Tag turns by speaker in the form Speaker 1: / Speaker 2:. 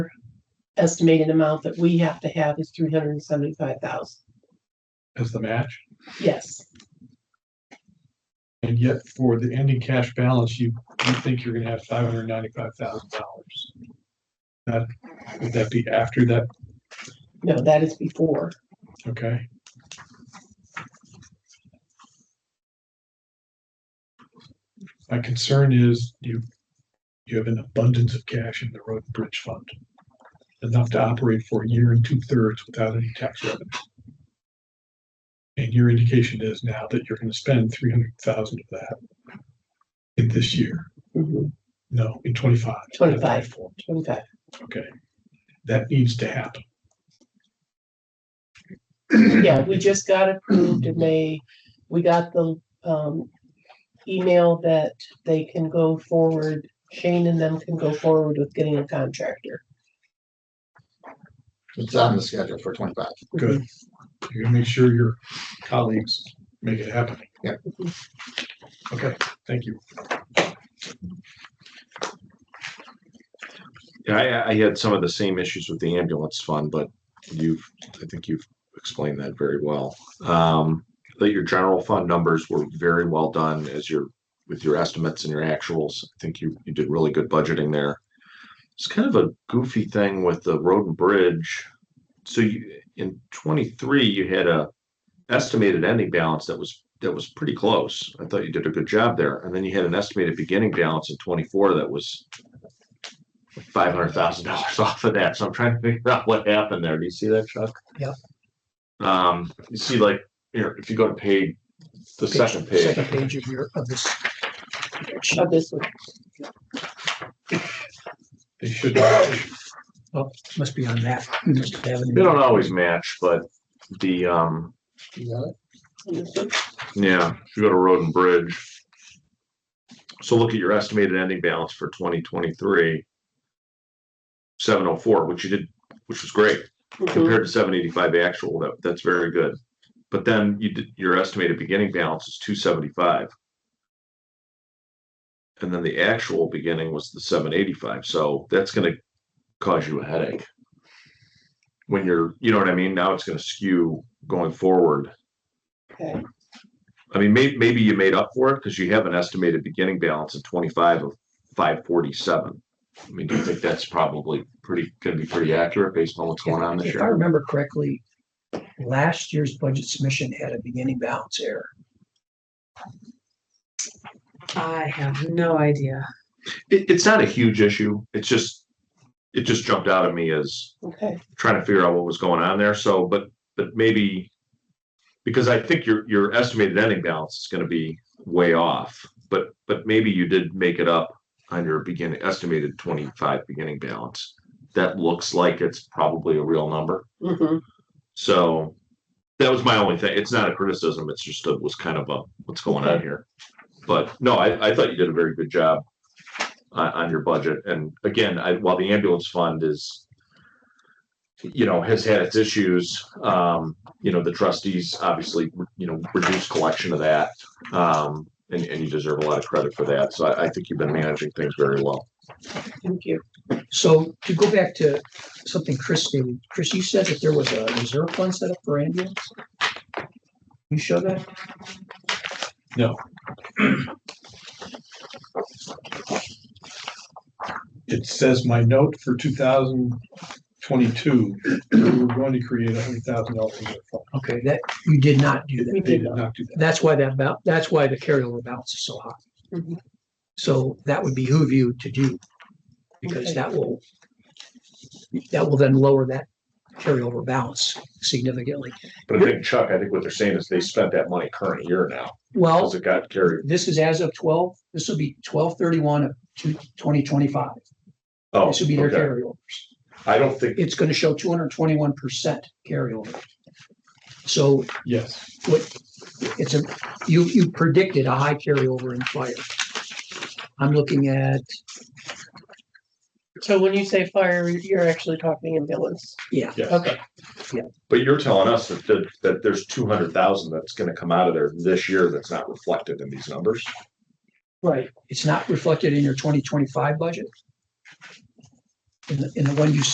Speaker 1: estimated amount that we have to have is three hundred and seventy-five thousand.
Speaker 2: as the match.
Speaker 1: Yes,
Speaker 2: And yet for the ending cash balance, you, you think you're gonna have five hundred ninety-five thousand dollars. That, would that be after that?
Speaker 1: no, that is before.
Speaker 2: Okay. My concern is you, you have an abundance of cash in the road and bridge fund. Enough to operate for a year and two thirds without any tax revenue. And your indication is now that you're gonna spend three hundred thousand of that in this year,
Speaker 1: Mhm,
Speaker 2: no, in twenty-five. not
Speaker 1: 25.
Speaker 2: 24.
Speaker 1: Twenty-five.
Speaker 2: Okay, that needs to happen.
Speaker 1: Yeah, we just got approved and they, we got the, um, email that they can go forward, Shane and them can go forward with getting a contractor.
Speaker 3: It's on the schedule for twenty-five.
Speaker 2: Good. You're gonna make sure your colleagues make it happen.
Speaker 3: Yep.
Speaker 2: Okay, thank you.
Speaker 4: Yeah, I, I had some of the same issues with the ambulance fund, but you've, I think you've explained that very well. Um, that your general fund numbers were very well done as your, with your estimates and your actuals. I think you, you did really good budgeting there. It's kind of a goofy thing with the road and bridge. So you, in twenty-three, you had a estimated ending balance that was, that was pretty close. I thought you did a good job there. And then you had an estimated beginning balance in twenty-four that was five hundred thousand dollars off of that. So I'm trying to figure out what happened there. Do you see that, Chuck?
Speaker 1: Yep.
Speaker 4: Um, you see, like, here, if you go to page, the second page,
Speaker 3: Second page of your, of this.
Speaker 1: Of Oh, this one,
Speaker 2: They should, match.
Speaker 3: Must be on that.
Speaker 4: they don't always match, but the, um,
Speaker 1: and this one.
Speaker 4: yeah, if you go to road and bridge. So look at your estimated ending balance for twenty twenty-three. Seven oh four, which you did, which was great.
Speaker 1: Mhm,
Speaker 4: compared to seven eighty-five actual, that, that's very good. But then you did, your estimated beginning balance is two seventy-five. And then the actual beginning was the seven eighty-five, so that's gonna cause you a headache. When you're, you know what I mean, now it's gonna skew going forward.
Speaker 1: Okay,
Speaker 4: I mean, may, maybe you made up for it, because you have an estimated beginning balance of twenty-five of five forty-seven. I mean, do you think that's probably pretty, gonna be pretty accurate based on what's going on this
Speaker 5: If I
Speaker 4: year?
Speaker 5: remember correctly, last year's budget submission had a beginning balance error.
Speaker 6: I have no idea.
Speaker 4: It, it's not a huge issue. It's just, it just jumped out at me as
Speaker 1: okay,
Speaker 4: trying to figure out what was going on there. So, but, but maybe, because I think your, your estimated ending balance is gonna be way off, but, but maybe you did make it up on your beginning, estimated twenty-five beginning balance. That looks like it's probably a real number.
Speaker 1: mhm.
Speaker 4: So that was my only thing. It's not a criticism. It's just, it was kind of a, what's going on here? But no, I, I thought you did a very good job on, on your budget. And again, I, while the ambulance fund is, you know, has had its issues, um, you know, the trustees obviously, you know, reduced collection of that. Um, and, and you deserve a lot of credit for that. So I, I think you've been managing things very well.
Speaker 1: thank you.
Speaker 5: So to go back to something Chris stated, Chris, you said that there was a reserve fund set up for ambulance? You show that?
Speaker 2: it says my note for two thousand twenty-two, we were going to create a hundred thousand dollars.
Speaker 5: Okay, that, you did not do
Speaker 1: We
Speaker 5: that.
Speaker 2: They did not do that.
Speaker 5: That's why that, bal- that's why the carryover balance is so high.
Speaker 1: Mhm.
Speaker 5: So that would behoove you to do, because
Speaker 1: Okay.
Speaker 5: that will, that will then lower that carryover balance significantly.
Speaker 4: But I think Chuck, I think what they're saying is they spent that money current year now
Speaker 5: Well,
Speaker 4: because it got carried.
Speaker 5: This is as of twelve, this will be twelve thirty-one of two, twenty twenty-five.
Speaker 4: Oh,
Speaker 5: This would be their
Speaker 4: okay.
Speaker 5: carryover.
Speaker 4: I don't think
Speaker 5: It's gonna show two hundred twenty-one percent carryover. So
Speaker 2: Yes,
Speaker 5: what, it's a, you, you predicted a high carryover in fire. I'm looking at,
Speaker 1: So when you say fire, you're actually talking ambulance.
Speaker 5: yeah,
Speaker 2: yes.
Speaker 1: Okay,
Speaker 4: But you're telling us that, that, that there's two hundred thousand that's gonna come out of there this year that's not reflected in these numbers?
Speaker 1: right.
Speaker 5: it's not reflected in your twenty twenty-five budget. In the, in the one you